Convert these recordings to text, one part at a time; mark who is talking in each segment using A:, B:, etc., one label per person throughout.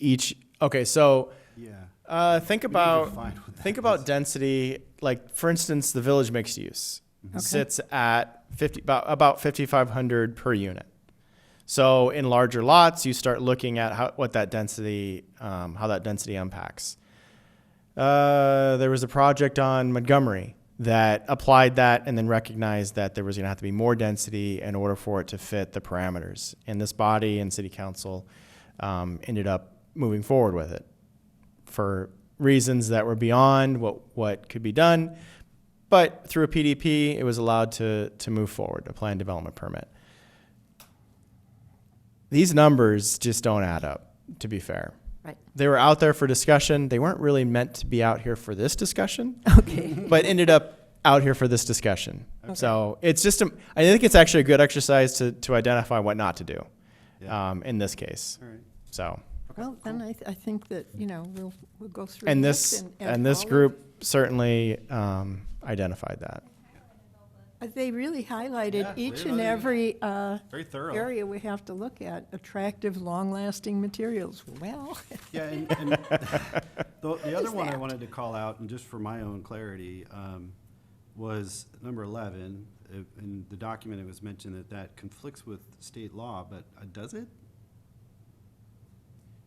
A: each. Okay, so
B: Yeah.
A: uh, think about
B: find what that
A: think about
B: is.
A: density. Like for instance, the village mixed use
B: Okay.
A: sits at fifty about about fifty five hundred per unit. So in larger lots, you start looking at how what that density um, how that density unpacks. Uh, there was a project on Montgomery that applied that and then recognized that there was going to have to be more density in order for it to fit the parameters. And this body and city council um, ended up moving forward with it for reasons that were beyond what, what could be done. But through a PDP, it was allowed to, to move forward, a plan development permit. These numbers just don't add up, to be fair.
C: Right.
A: They were out there for discussion. They weren't really meant to be out here for this discussion,
C: Okay.
A: but ended up out here for this discussion. So it's just, a, I think it's actually a good exercise to, to identify what not to do
B: Yeah.
A: um, in this case.
B: All right.
A: So.
C: Well, then I, th- I think that, you know, we'll, we'll go through.
A: And this, and this
C: all of-
A: group certainly um, identified that.
C: uh, They really
B: Yeah,
C: highlighted each
B: they
C: and
B: really-
C: every uh,
B: Very thorough.
C: area we have to look at, attractive, long-lasting materials. Well,
B: Yeah, and, and the, the other
C: is
B: one I
C: that?
B: wanted to call out, and just for my own clarity, um, was number eleven. It- In the document, it was mentioned that that conflicts with state law, but uh, does it?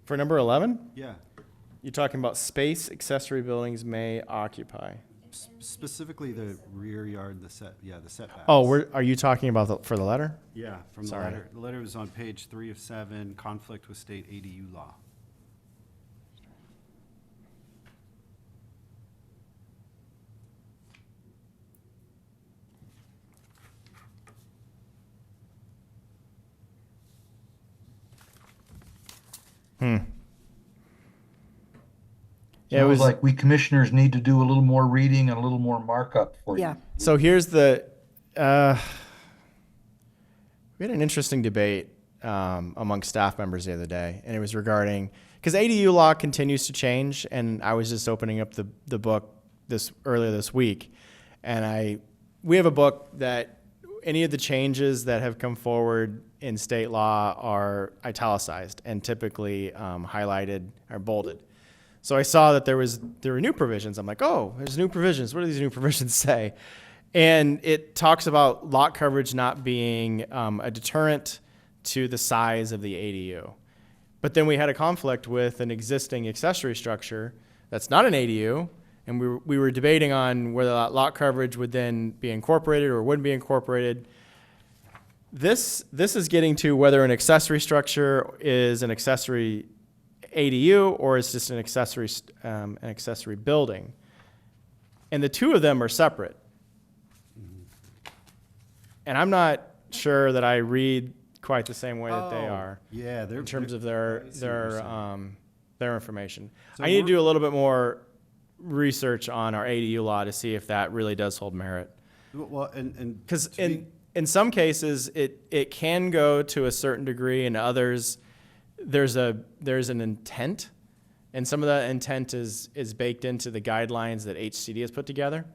A: For number 11,
B: Yeah,
A: you're talking about space accessory buildings may occupy.
B: S- specifically the rear yard, the set, yeah, the setbacks.
A: Oh, we're, are you talking about the, for the letter?
B: Yeah, from the
A: Sorry.
B: letter. The letter was on page three of seven, conflict with state ADU law.
A: Yeah, it
D: Sounds
A: was,
D: like we commissioners need to do a little more reading and a little more markup for
C: yeah,
D: you.
A: so here's the, uh, we had an interesting debate um, among staff members the other day, and it was regarding, because ADU law continues to change, and I was just opening up the, the book this, earlier this week, and I, we have a book that any of the changes that have come forward in state law are italicized and typically um, highlighted or bolded. So I saw that there was there were new provisions. I'm like, oh, there's new provisions. What do these new provisions say? And it talks about lot coverage not being um, a deterrent to the size of the ADU. But then we had a conflict with an existing accessory structure that's not an ADU, and we were, we were debating on whether that lot coverage would then be incorporated or wouldn't be incorporated. This this is getting to whether an accessory structure is an accessory ADU or is just an accessory st- um, an accessory building, and the two of them are separate. And I'm not sure that I read quite the same way that they
B: Oh,
A: are
B: Yeah, they're.
A: in terms
B: they're-
A: of their
B: I see what you're
A: their
B: saying.
A: um, their information.
B: So
A: I need to
B: we're-
A: do a little bit more research on our ADU law to see if that really does hold merit.
B: Well, and, and.
A: Because
B: to be-
A: in in some cases it it can go to a certain degree, and others there's a there's an intent, and some of that intent is is baked into the guidelines that HCD has put together.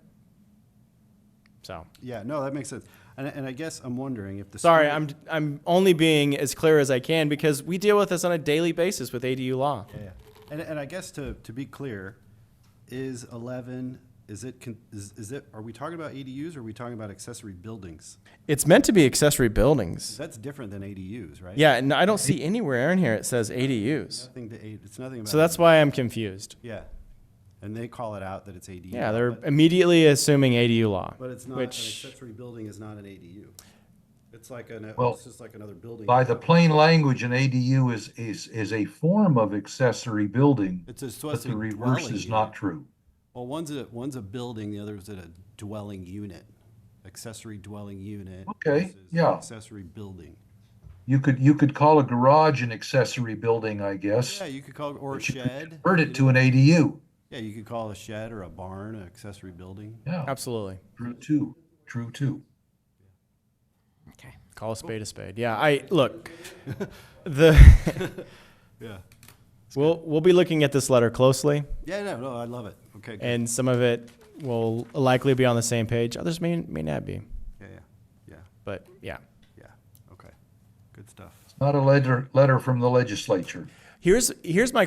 A: So.
B: Yeah, no, that makes sense. And, and I guess I'm wondering if the.
A: Sorry,
B: school-
A: I'm I'm only being as clear as I can because we deal with this on a daily basis with ADU law.
B: Yeah, yeah. And, and I guess to, to be clear, is eleven, is it, con- is, is it, are we talking about ADUs or are we talking about accessory buildings?
A: It's meant to be accessory buildings.
B: That's different than ADUs, right?
A: Yeah, and I don't see anywhere in here it says ADUs.
B: Nothing to, A- it's nothing about.
A: So that's why I'm confused.
B: Yeah. And they call it out that it's ADU.
A: Yeah, they're
B: but-
A: immediately assuming ADU law.
B: But it's not, an
A: which-
B: accessory building is not an ADU. It's like an,
D: Well,
B: it's just like another building.
D: By the plain language, an ADU is, is, is a form of accessory building,
B: It's a
D: but
B: supposed to
D: the
B: be
D: reverse
B: dwelling
D: is
B: unit.
D: not true.
B: Well, one's a, one's a building, the other is a dwelling unit, accessory dwelling unit.
D: Okay,
B: versus
D: yeah.
B: Accessory building.
D: You could, you could call a garage an accessory building, I guess.
B: Yeah, you could call, or a
D: but you could
B: shed.
D: Convert it to an ADU.
B: Yeah, you could call a shed or a barn, an accessory building.
D: Yeah,
A: Absolutely.
D: true too, true too.
C: okay.
A: Call a spade a spade. Yeah, I look. The
B: Yeah.
A: we'll we'll be looking at this letter closely,
B: Yeah, no, no, I love it. Okay, good.
A: and some of it will likely be on the same page. Others may may not be,
B: yeah, yeah, yeah,
A: but yeah.
B: yeah, okay. Good stuff.
D: Not a letter, letter from the legislature.
A: Here's here's my